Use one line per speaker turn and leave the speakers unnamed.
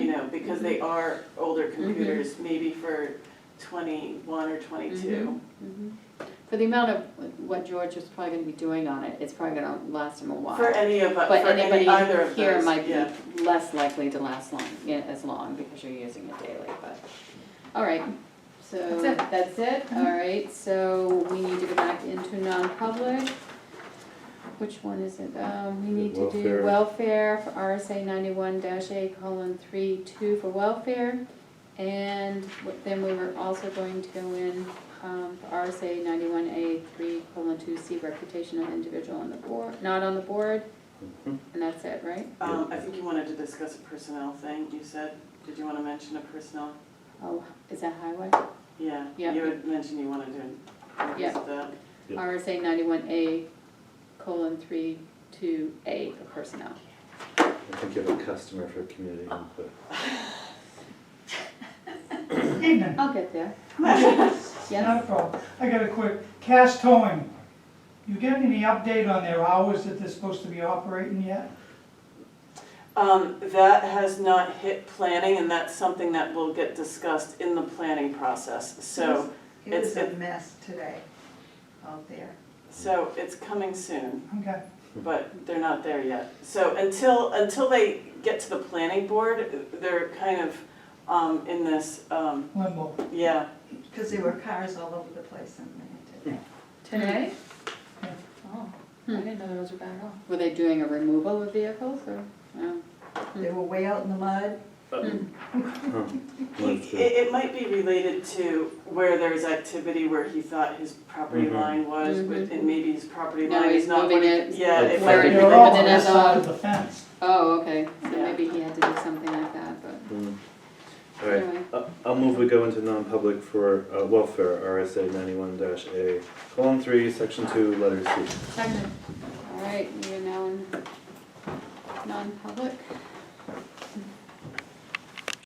because they are older computers, maybe for twenty-one or twenty-two.
Mhm. For the amount of what George is probably gonna be doing on it, it's probably gonna last him a while.
For any of, for
But
any,
anybody
either of
here
those,
might
yeah.
be less likely to last long, yeah, as long, because you're using it daily, but, all right. So,
That's it. Mm-hmm.
that's it, all right, so we need to go back into non-public. Which one is it? Um, we need to do
Welfare.
welfare for RSA ninety-one dash A colon three two for welfare. And what- then we were also going to go in, um, for RSA ninety-one A three colon two C reputation of individual on the board, not on the board. And that's it, right?
Um, I think you wanted to discuss a personnel thing, you said, did you wanna mention a personnel?
Oh, is that highway?
Yeah,
Yeah.
you had mentioned you wanted to
Yeah.
revisit that.
Yep.
RSA ninety-one A colon three two A for personnel.
I think you have a customer for community input.
Evening,
I'll get there.
not
Uh, Yes,
a problem. I got a quick, Cash Towing, you get any update on their hours that they're supposed to be operating yet?
Um, that has not hit planning, and that's something that will get discussed in the planning process, so,
It was
It's-
a mess today out there.
so it's coming soon,
Okay,
but they're not there yet. So until, until they get to the planning board, they're kind of, um, in this, um,
limbo.
yeah,
Because there were cars all over the place in there today.
Today?
Yeah.
Oh, I didn't know those were bad at all.
were they doing a removal of vehicles or, no?
They were way out in the mud.
Huh.
He,
That's it.
it, it might be related to where there's activity where he thought his property
Mhm.
line was, with- and maybe his property
Mm-hmm. Now
line
he's
is not
moving
what he-
it
Yeah, it
where
might
it-
be.
They're all on
within
the
us
side
all.
of the fence.
Oh, okay, so
Yeah.
maybe he had to do something like that, but
Mm. All right,
anyway.
Uh, I'll move we go into non-public for uh, welfare, RSA ninety-one dash A, column three, section two, letter C.
Second. All right, we are now in non-public.